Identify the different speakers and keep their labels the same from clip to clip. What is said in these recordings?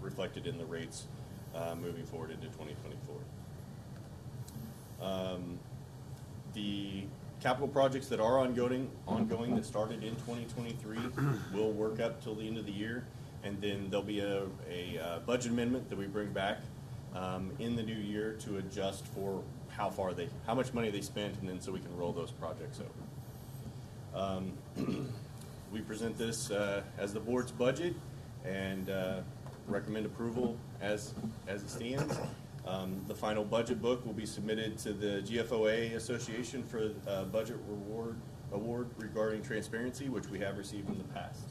Speaker 1: reflected in the rates uh, moving forward into 2024. Um, The capital projects that are ongoing, ongoing that started in 2023 will work up till the end of the year. And then there'll be a, a uh, budget amendment that we bring back um, in the new year to adjust for how far they, how much money they spent, and then so we can roll those projects over. Um, We present this uh, as the board's budget and uh, recommend approval as, as it stands. Um, The final budget book will be submitted to the GFOA Association for uh, Budget Reward Award regarding transparency, which we have received in the past.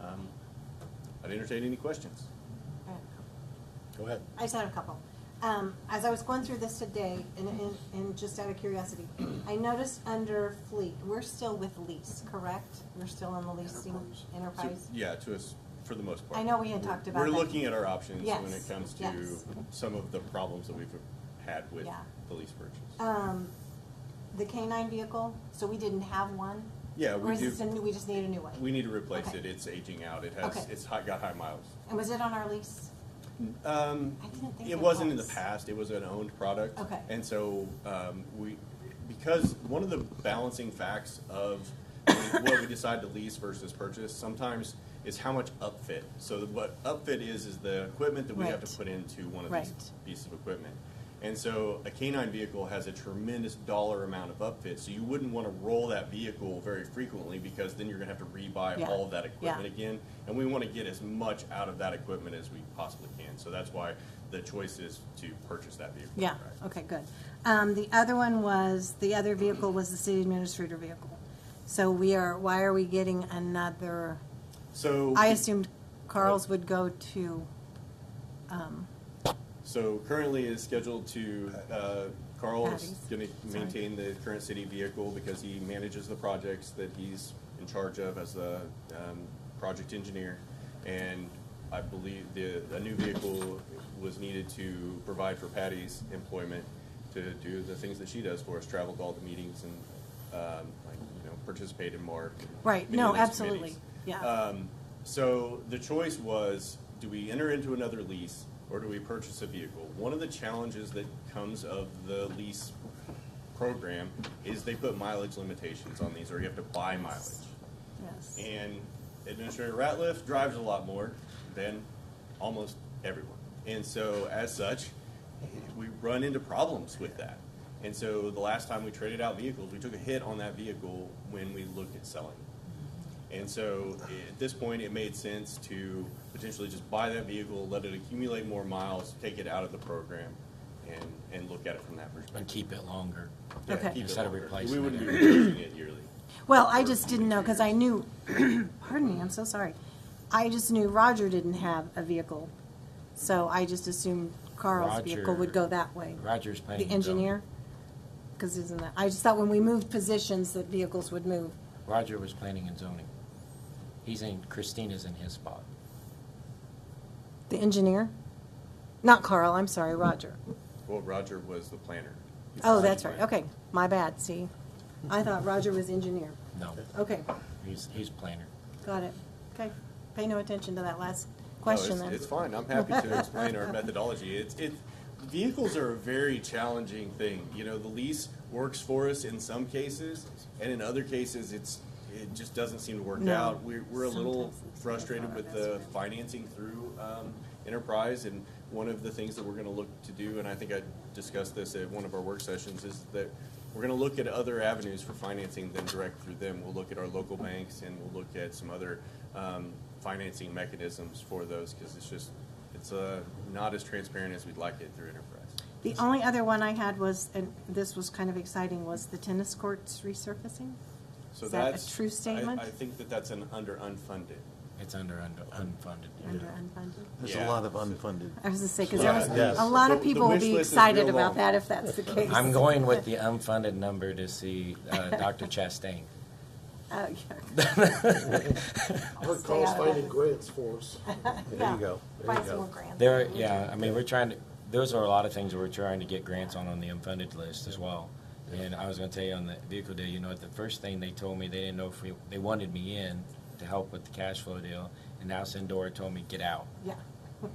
Speaker 1: Um, I'd entertain any questions. Go ahead.
Speaker 2: I just had a couple. Um, as I was going through this today, and, and, and just out of curiosity, I noticed under fleet, we're still with lease, correct? We're still in the leasing enterprise?
Speaker 1: Yeah, to us, for the most part.
Speaker 2: I know we had talked about
Speaker 1: We're
Speaker 2: that.
Speaker 1: looking at our options when it
Speaker 2: Yes,
Speaker 1: comes to
Speaker 2: yes.
Speaker 1: some of the problems that we've had with
Speaker 2: Yeah.
Speaker 1: the lease purchase.
Speaker 2: Um, the K nine vehicle, so we didn't have one?
Speaker 1: Yeah, we
Speaker 2: Or is
Speaker 1: do-
Speaker 2: this a new, we just need a new one?
Speaker 1: We need to replace
Speaker 2: Okay.
Speaker 1: it, it's aging out, it has,
Speaker 2: Okay.
Speaker 1: it's high- got high miles.
Speaker 2: And was it on our lease?
Speaker 1: Um,
Speaker 2: I didn't think
Speaker 1: it
Speaker 2: it
Speaker 1: wasn't in the
Speaker 2: was.
Speaker 1: past, it was an owned product.
Speaker 2: Okay.
Speaker 1: And so, um, we, because one of the balancing facts of what we decide to lease versus purchase sometimes is how much upfit. So what upfit is, is the equipment that we have to
Speaker 2: Right.
Speaker 1: put into one of these
Speaker 2: Right.
Speaker 1: pieces of equipment. And so a canine vehicle has a tremendous dollar amount of upfit, so you wouldn't want to roll that vehicle very frequently because then you're gonna have to rebuy
Speaker 2: Yeah.
Speaker 1: all of that
Speaker 2: Yeah.
Speaker 1: equipment again. And we want to get as much out of that equipment as we possibly can, so that's why the choice is to purchase that vehicle.
Speaker 2: Yeah,
Speaker 1: outright.
Speaker 2: okay, good. Um, the other one was, the other vehicle was the city administrator vehicle. So we are, why are we getting another?
Speaker 1: So.
Speaker 2: I assumed Carl's would go to,
Speaker 1: So currently is scheduled to, uh, Carl is
Speaker 2: Patty's.
Speaker 1: gonna maintain the current city vehicle because he manages the projects that he's in charge of as the, um, project engineer. And I believe the, a new vehicle was needed to provide for Patty's employment to do the things that she does for us, travel to all the meetings and, um, like, you know, participate in MARC. and
Speaker 2: Right,
Speaker 1: many
Speaker 2: no,
Speaker 1: of these
Speaker 2: absolutely,
Speaker 1: committees.
Speaker 2: yeah.
Speaker 1: Um, so the choice was, do we enter into another lease or do we purchase a vehicle? One of the challenges that comes of the lease program is they put mileage limitations on these, or you have to buy mileage.
Speaker 2: yes.
Speaker 1: And Administrator Ratliff drives a lot more than almost everyone. And so, as such, we run into problems with that. And so, the last time we traded out vehicles, we took a hit on that vehicle when we looked at selling it. And so, at this point, it made sense to potentially just buy that vehicle, let it accumulate more miles, take it out of the program, and, and look at it from that perspective.
Speaker 3: And keep it longer.
Speaker 1: Yeah,
Speaker 2: Okay.
Speaker 1: keep it
Speaker 3: Instead of
Speaker 1: longer.
Speaker 3: replacing
Speaker 1: We wouldn't
Speaker 3: it
Speaker 1: be
Speaker 3: every-
Speaker 1: replacing it yearly.
Speaker 2: Well, I just didn't know, because I knew, pardon me, I'm so sorry. I just knew Roger didn't have a vehicle, so I just assumed Carl's vehicle would go that way.
Speaker 3: Roger's paying.
Speaker 2: The
Speaker 3: his own-
Speaker 2: engineer? Because isn't that, I just thought when we moved positions that vehicles would move.
Speaker 3: Roger was planning and zoning. He's in, Christina's in his spot.
Speaker 2: The engineer? Not Carl, I'm sorry, Roger.
Speaker 1: Well, Roger was the planner. He's
Speaker 2: Oh,
Speaker 1: the
Speaker 2: that's
Speaker 1: planner.
Speaker 2: right, okay, my bad, see? I thought Roger was engineer.
Speaker 3: No,
Speaker 2: Okay,
Speaker 3: he's, he's planner.
Speaker 2: got it. Okay, pay no attention to that last
Speaker 1: No,
Speaker 2: question
Speaker 1: it's-
Speaker 2: then.
Speaker 1: It's fine, I'm happy to explain our methodology. It's, it, vehicles are a very challenging thing. You know, the lease works for us in some cases, and in other cases, it's, it just doesn't seem to work
Speaker 2: No.
Speaker 1: out. We're, we're a little
Speaker 2: Sometimes it's-
Speaker 1: frustrated with the financing through, um, enterprise, and one of the things that we're gonna look to do, and I think I discussed this at one of our work sessions, is that we're gonna look at other avenues for financing than direct through them. We'll look at our local banks, and we'll look at some other, um, financing mechanisms for those, because it's just, it's, uh, not as transparent as we'd like it through enterprise.
Speaker 2: The only other one I had was, and this was kind of exciting, was the tennis courts resurfacing.
Speaker 1: So
Speaker 2: Is that a
Speaker 1: that's
Speaker 2: true
Speaker 1: I-
Speaker 2: statement?
Speaker 1: I think that that's an under unfunded.
Speaker 3: It's under un- unfunded.
Speaker 2: Under unfunded.
Speaker 4: There's
Speaker 1: Yeah.
Speaker 4: a lot of unfunded.
Speaker 2: I was gonna say, because
Speaker 1: Yeah,
Speaker 2: there was,
Speaker 4: yes.
Speaker 2: a lot
Speaker 1: The-
Speaker 2: of
Speaker 1: the
Speaker 2: people will
Speaker 1: wish
Speaker 2: be
Speaker 1: list is
Speaker 2: excited
Speaker 1: real
Speaker 2: about
Speaker 1: long.
Speaker 2: that if that's the case.
Speaker 3: I'm going with the unfunded number to see uh, Dr. Chastain.
Speaker 2: Oh, yeah.
Speaker 5: Her
Speaker 2: Stay
Speaker 5: call's
Speaker 2: out of
Speaker 5: finding
Speaker 2: it.
Speaker 5: grants for us.
Speaker 4: There
Speaker 2: Yeah.
Speaker 4: you go. There
Speaker 2: Find
Speaker 4: you
Speaker 2: some more
Speaker 4: go.
Speaker 2: grants.
Speaker 3: There, yeah, I mean, we're trying to, those are a lot of things that we're trying to get grants on on the unfunded list as well. And I was gonna tell you on the vehicle deal, you know, the first thing they told me, they didn't know if we, they wanted me in to help with the cash flow deal, and now Sandora told me, get out.
Speaker 2: Yeah.